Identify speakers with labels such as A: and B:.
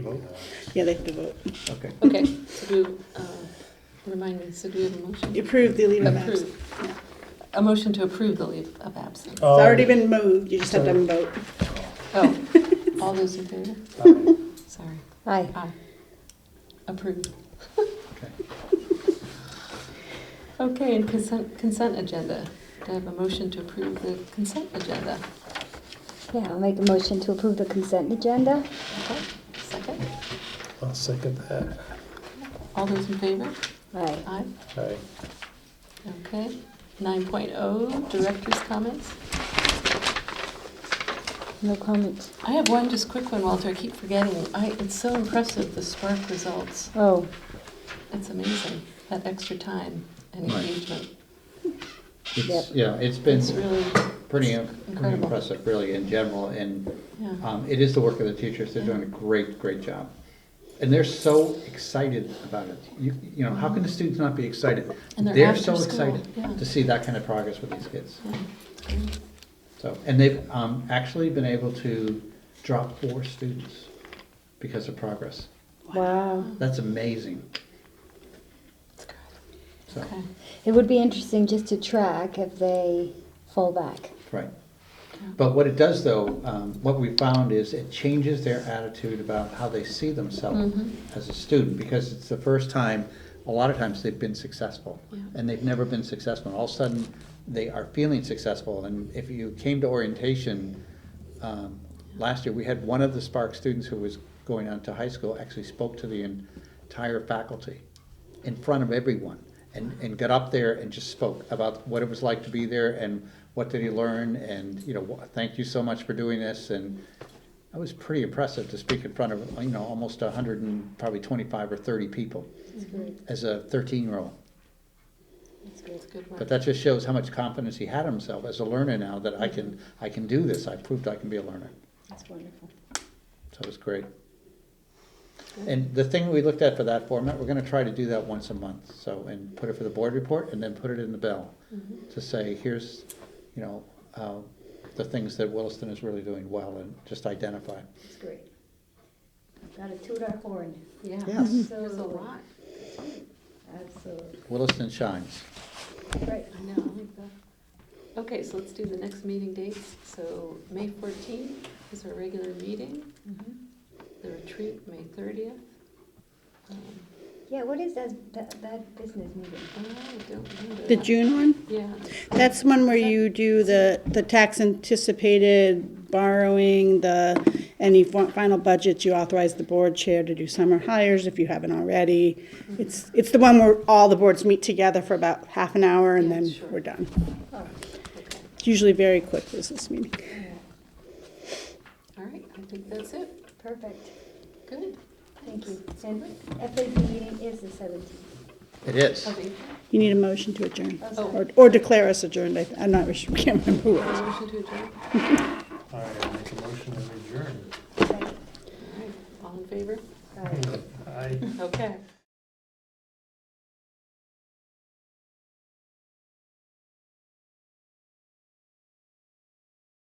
A: Vote?
B: Yeah, they have to vote.
A: Okay.
C: Okay, so do, uh, remind me, so do we have a motion?
B: Approve the leave of absence.
C: Approve, yeah. A motion to approve the leave of absence.
B: It's already been moved, you just have to vote.
C: Oh, all those in favor? Sorry.
D: Aye.
C: Aye. Approved.
A: Okay.
C: Okay, and consent, consent agenda. Do I have a motion to approve the consent agenda?
D: Yeah, I'll make a motion to approve the consent agenda.
C: Okay, second.
E: I'll second that.
C: All those in favor?
D: Aye.
C: Aye.
E: Aye.
C: Okay. Nine oh, director's comments.
D: No comments.
C: I have one just quick one, Walter. I keep forgetting. I, it's so impressive, the SPARC results.
D: Oh,
C: It's amazing, that extra time and
A: Right.
C: engagement.
A: It's, yeah, it's been
C: It's really,
A: pretty, pretty
C: incredible. Mm-hmm.
A: impressive, really, in general, and
C: yeah,
A: um, it is the work of the teachers, they're doing a great, great job. And they're so excited about it, you, you know, how can the students not be excited?
C: Mm-hmm. And they're after
A: so
C: school,
A: excited
C: yeah.
A: to see that kind of progress with these kids.
C: yeah. great.
A: So, and they've um, actually been able to drop four students because of progress.
D: wow.
A: That's amazing,
C: It's good.
A: so,
C: Okay,
D: It would be interesting just to track if they fall back.
A: right. But what it does though, um, what we found is it changes their attitude about how they see themselves
C: Mhm.
A: as a student, because it's the first time, a lot of times they've been successful.
C: Yeah.
A: And they've never been successful, and all of a sudden, they are feeling successful, and if you came to orientation, um, last year, we had one of the Spark students who was going on to high school, actually spoke to the entire faculty in front of everyone, and, and got up there and just spoke about what it was like to be there, and what did he learn, and, you know, wha- thank you so much for doing this, and that was pretty impressive to speak in front of, you know, almost a hundred and probably twenty-five or thirty people as a thirteen-year-old.
C: it's good
A: But
C: work.
A: that just shows how much confidence he had in himself as a learner now, that I can, I can do this, I proved I can be a learner.
D: That's wonderful.
A: So it was great. And the thing we looked at for that format, we're gonna try to do that once a month, so, and put it for the board report, and then put it in the bell,
C: Mm-hmm.
A: to say, here's, you know, uh, the things that Williston is really doing well, and just identify.
F: It's great. I've Got to toot our horn,
C: Yeah,
A: Yes.
C: there's a lot.
F: absolutely.
A: Williston shines.
F: Right.
C: I know, I like that. Okay, so let's do the next meeting dates. So May fourteenth is our regular meeting, the retreat, May thirtieth.
F: Yeah, what is that, that, that business meeting?
C: Uh, I don't remember.
B: The June one,
C: Yeah,
B: that's one where you do the, the tax anticipated borrowing, the, any fi- final budgets, you authorize the board chair to do summer hires if you haven't already. It's, it's the one where all the boards meet together for about half an hour and
C: Yeah,
B: then
C: sure.
B: we're done.
F: Oh,
C: okay.
B: It's usually very quick business meeting.
C: All right, I think that's it.
F: perfect,
C: Good.
F: thank you. And FAB meeting
D: E
F: is the seventeenth.
A: It is.
C: Okay.
B: You need a motion to adjourn,
C: Oh.
B: or, or declare us adjourned, I- I'm not, sure- can't remember who it was.
C: Motion to adjourn.
E: All right, I'll make a motion to adjourn.
C: All right, All in favor?
F: All right.
E: Aye.
C: Okay.